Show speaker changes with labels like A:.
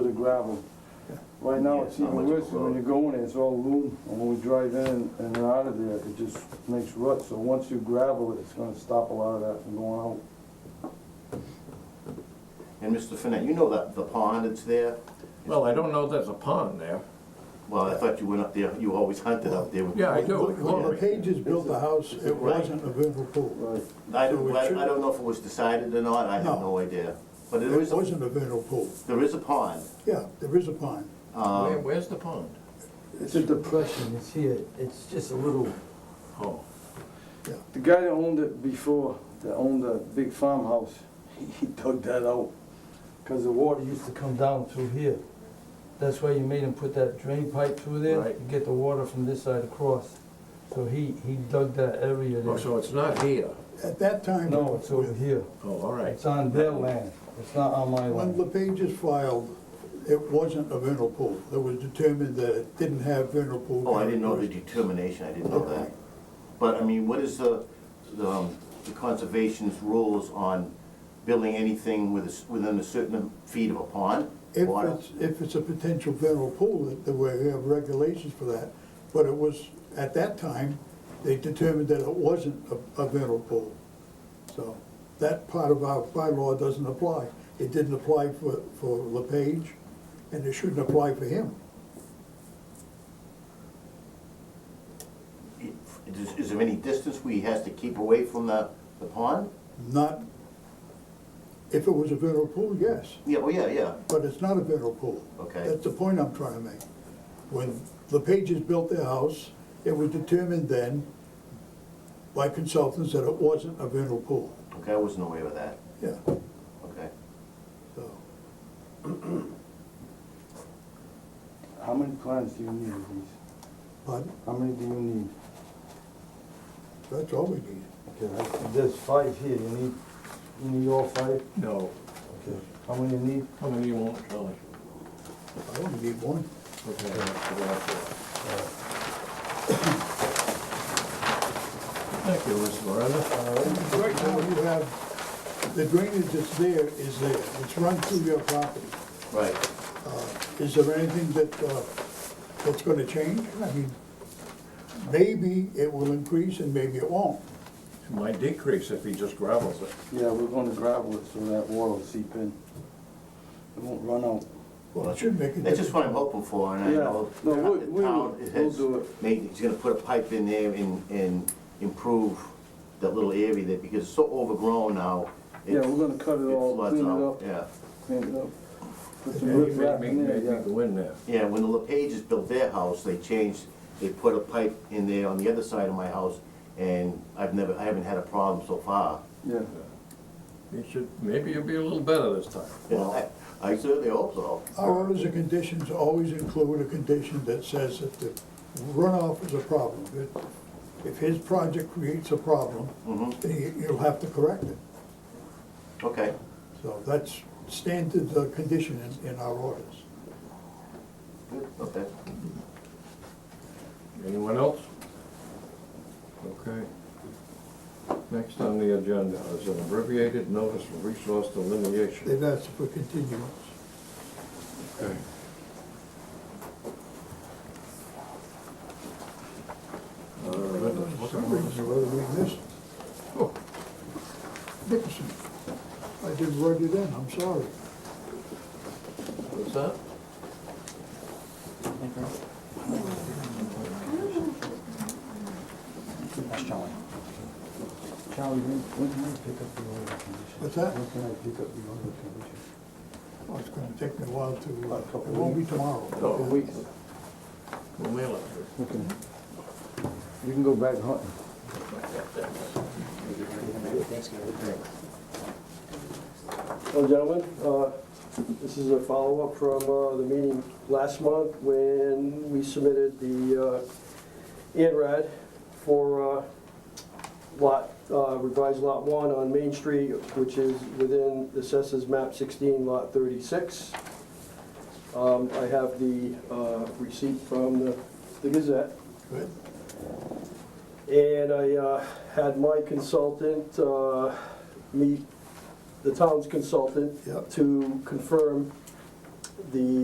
A: gravel. Right now, it's
B: Yeah, not
A: even
B: much of a
A: worse, 'cause when
B: road.
A: you go in, it's all loom, and when we drive in and out of there, it just makes ruts, so once you gravel it, it's gonna stop a lot of that from going out.
B: And Mr. Finette, you know that the pond that's there?
C: Well, I don't know there's a pond there.
B: Well, I thought you went up there, you always hunted up there. with-
C: Yeah, I do.
D: When the Pages built the house, it
B: Right.
D: wasn't a vernal pool.
A: Right.
B: I
D: So
B: don't,
D: it
B: I
D: should-
B: I don't know if it was decided or not, I have
D: No.
B: no idea. But
D: It
B: there is, a-
D: wasn't a vernal pool.
B: there is a pond.
D: Yeah, there is a pond.
C: Where, where's the pond?
A: It's a depression.
E: It's here, it's just a little,
C: Oh,
A: The guy that owned it before, that owned the big farmhouse, he dug that out,
E: because the water used to come down through here. That's why you made him put that drain pipe through there, to
C: Right.
E: get the water from this side across. So he, he dug that area
C: oh,
E: there.
C: so it's not here.
D: At that time.
E: No, it's over here.
C: Oh, all right.
E: It's on their land, it's not on my
D: When the
E: land.
D: Pages filed, it wasn't a vernal pool. It was determined that it didn't have vernal pool.
B: Oh, I didn't know the
D: characteristics.
B: determination, I didn't know that. But, I mean, what is the, the um, the conservation's rules on building anything with, a s- within a certain feet of a pond?
D: If
B: Water?
D: it's, if it's a potential vernal pool, that there were, we have regulations for that. But it was, at that time, they determined that it wasn't a, a vernal pool. So that part of our bylaw doesn't apply. It didn't apply for, for LePage, and it shouldn't apply for him.
B: It- Is, is there any distance where he has to keep away from the, the pond?
D: Not, if it was a vernal pool, yes,
B: Yeah, oh, yeah, yeah.
D: but it's not a vernal pool.
B: Okay.
D: That's the point I'm trying to make. When the Pages built their house, it was determined then by consultants that it wasn't a vernal pool.
B: Okay, I wasn't aware of that,
D: Yeah,
B: okay.
D: so,
A: how many plants do you need of these?
D: but
A: How many do you need?
D: that's all we need.
E: Okay, I- there's five here, you need, you need all five?
C: No,
E: Okay, how many you need?
C: how many you want, Charlie?
D: I only need one.
C: Okay, that's the last one. Thank you, Miss Loretta.
D: Right now, you have, the drainage that's there is there, it's run through your property.
B: Right.
D: Is there anything that, uh, that's gonna change? I mean, maybe it will increase and maybe it won't.
C: It might decrease if he just gravels it.
A: Yeah, we're gonna gravel it so that water will seep in. It won't run out.
D: Well, it should make a
B: That's just what
D: difference.
B: I'm hoping for, and I
A: Yeah.
B: know
A: No,
B: the
A: we- we
B: town
A: will-
B: has
A: we'll do it.
B: made, he's gonna put a pipe in there and, and improve that little area there, because it's so overgrown now. it-
A: Yeah, we're gonna cut it
B: it
A: all,
B: floods
A: clean it
B: out,
A: up,
B: Yeah,
A: clean it up. Put some
C: Yeah, you
A: rip
C: may
A: wrap
C: make,
A: in there,
C: make
A: yeah.
C: me go in there.
B: yeah, when the LePages built their house, they changed, they put a pipe in there on the other side of my house, and I've never, I haven't had a problem so far.
A: Yeah,
C: It should, maybe it'll be a little better this time.
B: I I certainly hope so.
D: Our orders and conditions always include a condition that says that the runoff is a problem. If- If his project creates a problem,
A: Mm-hmm.
D: then you- you'll have to correct it.
B: Okay,
D: So that's standard uh, condition in, in our orders.
B: good, okay.
C: Anyone else? Okay. Next on the agenda is an abbreviated notice of resource delineation.
D: They've asked for continuance.
C: Okay. Uh, let us
D: For
C: look
D: some
C: at
D: reason,
C: this.
D: whether we missed
C: Oh,
D: Dickinson. I didn't write it in, I'm sorry.
C: What's that?
E: That's Charlie. Charlie, when, when can I pick up the order condition?
D: What's that?
E: When can I pick up the order condition?
D: Well, it's gonna take me a while to, uh, it won't be tomorrow.
C: No.
A: couple weeks,
C: We'll mail it.
A: okay. You can go back hunting.
F: Well, gentlemen, uh, this is a follow-up from uh, the meeting last month when we submitted the uh, INRAD for uh, lot, uh, revised lot one on Main Street, which is within the assessors map 16, lot 36. Um, I have the uh, receipt from the the Gazette.
D: Good.
F: And I uh, had my consultant uh, meet the town's consultant
D: Yep.
F: to confirm the